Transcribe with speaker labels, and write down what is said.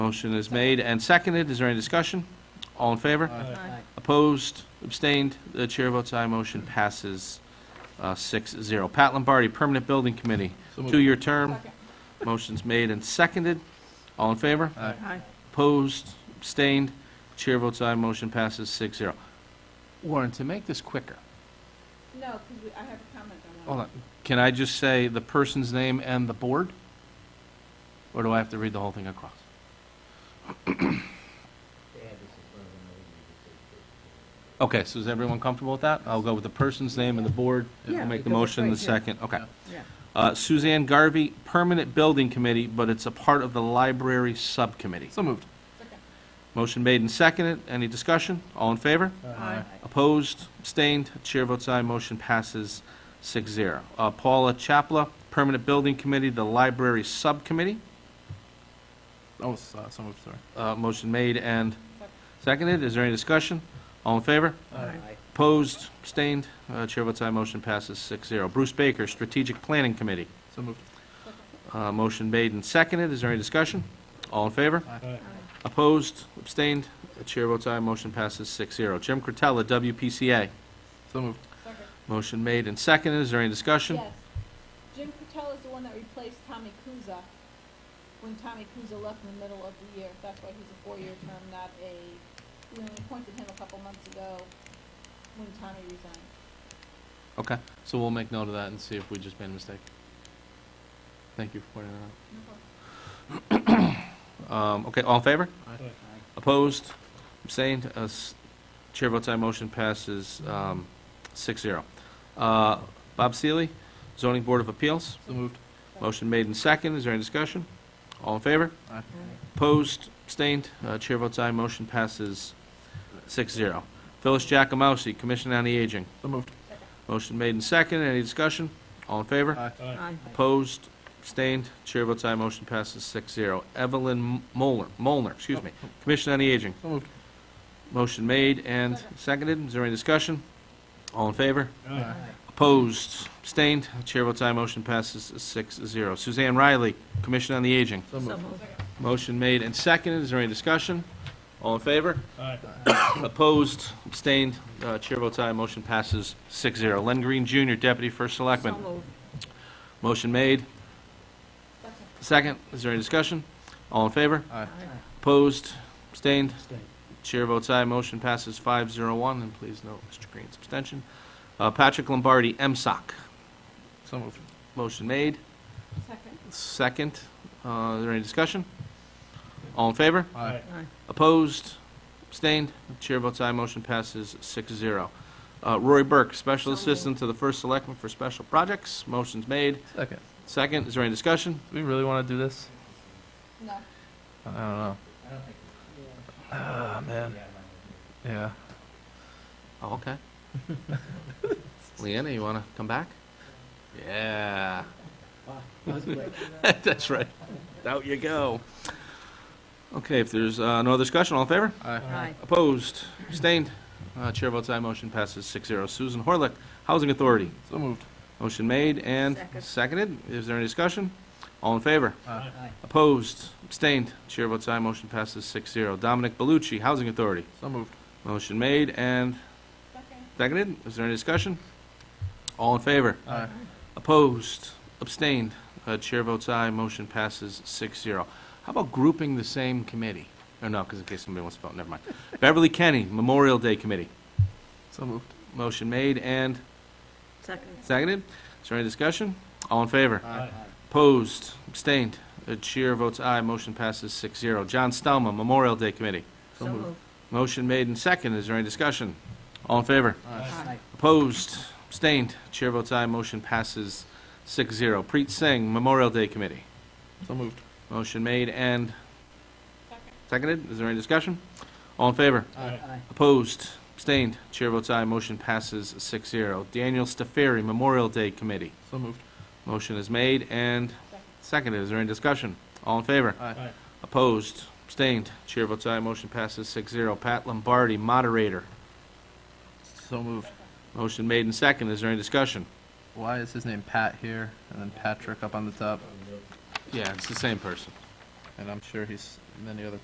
Speaker 1: Motion is made and seconded. Is there any discussion? All in favor?
Speaker 2: Aye.
Speaker 1: Opposed? Abstained? The chair votes aye. Motion passes uh, 6-0. Pat Lombardi, Permanent Building Committee,
Speaker 2: So moved.
Speaker 1: two-year term. Motion's made and seconded. All in favor?
Speaker 2: Aye.
Speaker 3: Aye.
Speaker 1: Opposed? Abstained? Chair votes aye. Motion passes 6-0. Warren, to make this quicker,
Speaker 4: No, because I have a comment on that.
Speaker 1: hold on. Can I just say the person's name and the board? Or do I have to read the whole thing across? Okay, so is everyone comfortable with that? I'll go with the person's name and the board.
Speaker 3: Yeah,
Speaker 1: We'll make the
Speaker 3: because it's
Speaker 1: motion in the
Speaker 3: right here.
Speaker 1: second, okay.
Speaker 3: Yeah.
Speaker 1: Uh, Suzanne Garvey, Permanent Building Committee, but it's a part of the Library Subcommittee.
Speaker 2: So moved.
Speaker 1: Motion made and seconded. Any discussion? All in favor?
Speaker 3: Aye.
Speaker 1: Opposed? Abstained? Chair votes aye. Motion passes 6-0. Uh, Paula Chapla, Permanent Building Committee, the Library Subcommittee.
Speaker 2: Oh, s- uh, so moved, sorry.
Speaker 1: Uh, motion made and seconded. Is there any discussion? All in favor?
Speaker 2: Aye.
Speaker 1: Opposed? Abstained? Uh, chair votes aye. Motion passes 6-0. Bruce Baker, Strategic Planning Committee.
Speaker 2: So moved.
Speaker 1: Uh, Motion made and seconded. Is there any discussion? All in favor?
Speaker 2: Aye.
Speaker 1: Opposed? Abstained? The chair votes aye. Motion passes 6-0. Jim Curtella, WPCA.
Speaker 2: So moved.
Speaker 4: Second.
Speaker 1: Motion made and seconded. Is there any discussion?
Speaker 4: Yes. Jim Patel is the one that replaced Tommy Kuza when Tommy Kuza left in the middle of the year. That's why he's a four-year term, not a, we only appointed him a couple months ago when Tommy resigned.
Speaker 1: Okay, so we'll make note of that and see if we just made a mistake. Thank you for pointing that out. Um, Okay, all in favor?
Speaker 2: Aye.
Speaker 1: Opposed? Abstained? Uh, s- Chair votes aye. Motion passes um, 6-0. Uh, Bob Seeley, Zoning Board of Appeals.
Speaker 2: So moved.
Speaker 1: Motion made and second. Is there any discussion? All in favor?
Speaker 2: Aye.
Speaker 1: Opposed? Abstained? Uh, Chair votes aye. Motion passes 6-0. Phyllis Jacomowski, Commission on the Aging.
Speaker 2: So moved.
Speaker 1: Motion made and second. Any discussion? All in favor?
Speaker 2: Aye.
Speaker 3: Aye.
Speaker 1: Opposed? Abstained? Chair votes aye. Motion passes 6-0. Evelyn Molnar, Molnar, excuse me, Commission on the Aging.
Speaker 2: So moved.
Speaker 1: Motion made and seconded. Is there any discussion? All in favor?
Speaker 2: Aye.
Speaker 1: Opposed? Abstained? Chair votes aye. Motion passes 6-0. Suzanne Riley, Commission on the Aging.
Speaker 2: So
Speaker 3: So
Speaker 2: moved.
Speaker 3: moved.
Speaker 1: Motion made and seconded. Is there any discussion? All in favor?
Speaker 2: Aye.
Speaker 1: Opposed? Abstained? Uh, Chair votes aye. Motion passes 6-0. Len Green Jr., Deputy First Selectman.
Speaker 3: So moved.
Speaker 1: Motion made. Second, is there any discussion? All in favor?
Speaker 2: Aye.
Speaker 1: Opposed? Abstained? Chair votes aye, motion passes five zero one, and please note Mr. Green's abstention. Uh, Patrick Lombardi, MSOC.
Speaker 2: So moved.
Speaker 1: Motion made.
Speaker 4: Second.
Speaker 1: Second, uh, is there any discussion? All in favor?
Speaker 2: Aye.
Speaker 3: Aye.
Speaker 1: Opposed? Abstained? Chair votes aye, motion passes six zero. Uh, Rory Burke, Special
Speaker 3: So moved.
Speaker 1: Assistant to the First Selectman for Special Projects. Motion's made.
Speaker 2: Second.
Speaker 1: Second, is there any discussion?
Speaker 2: Do we really want to do this?
Speaker 4: No.
Speaker 2: I don't know. Ah, man. Yeah.
Speaker 1: Oh, okay. Leanna, you want to come back? Yeah. That's right. Out you go. Okay, if there's uh, no other discussion, all in favor?
Speaker 3: Aye.
Speaker 1: Opposed? Abstained? Uh, Chair votes aye, motion passes 6-0. Susan Horlick, Housing Authority.
Speaker 2: So moved.
Speaker 1: Motion made and
Speaker 3: Second.
Speaker 1: seconded. Is there any discussion? All in favor?
Speaker 2: Aye.
Speaker 1: Opposed? Abstained? Chair votes aye, motion passes 6-0. Dominic Bellucci, Housing Authority.
Speaker 2: So moved.
Speaker 1: Motion made and
Speaker 4: Second.
Speaker 1: seconded. Is there any discussion? All in favor?
Speaker 2: Aye.
Speaker 1: Opposed, abstained, Uh, chair votes aye, motion passes 6-0. How about grouping the same committee? Oh, no, because in case somebody wants to vote, never mind. Beverly Kenny, Memorial Day Committee.
Speaker 2: So moved.
Speaker 1: Motion made and
Speaker 3: Second.
Speaker 1: seconded. Is there any discussion? All in favor?
Speaker 2: Aye.
Speaker 1: Opposed, abstained, Uh, chair votes aye, motion passes 6-0. John Stelma, Memorial Day Committee.
Speaker 3: So moved.
Speaker 1: Motion made and seconded. Is there any discussion? All in favor?
Speaker 3: Aye.
Speaker 1: Opposed, abstained, chair votes aye, motion passes 6-0. Preet Singh, Memorial Day Committee.
Speaker 2: So moved.
Speaker 1: Motion made and
Speaker 4: Second.
Speaker 1: seconded. Is there any discussion? All in favor?
Speaker 2: Aye.
Speaker 1: Opposed? Abstained? Chair votes aye. Motion passes 6-0. Daniel Stafiri, Memorial Day Committee.
Speaker 2: So moved.
Speaker 1: Motion is made and seconded. Is there any discussion? All in favor?
Speaker 2: Aye.
Speaker 1: Opposed? Abstained? Chair votes aye. Motion passes 6-0. Pat Lombardi, Moderator.
Speaker 2: So moved.
Speaker 1: Motion made and seconded. Is there any discussion?
Speaker 2: Why is his name Pat here and then Patrick up on the top?
Speaker 1: Yeah, it's the same person.
Speaker 2: And I'm sure he's and then the other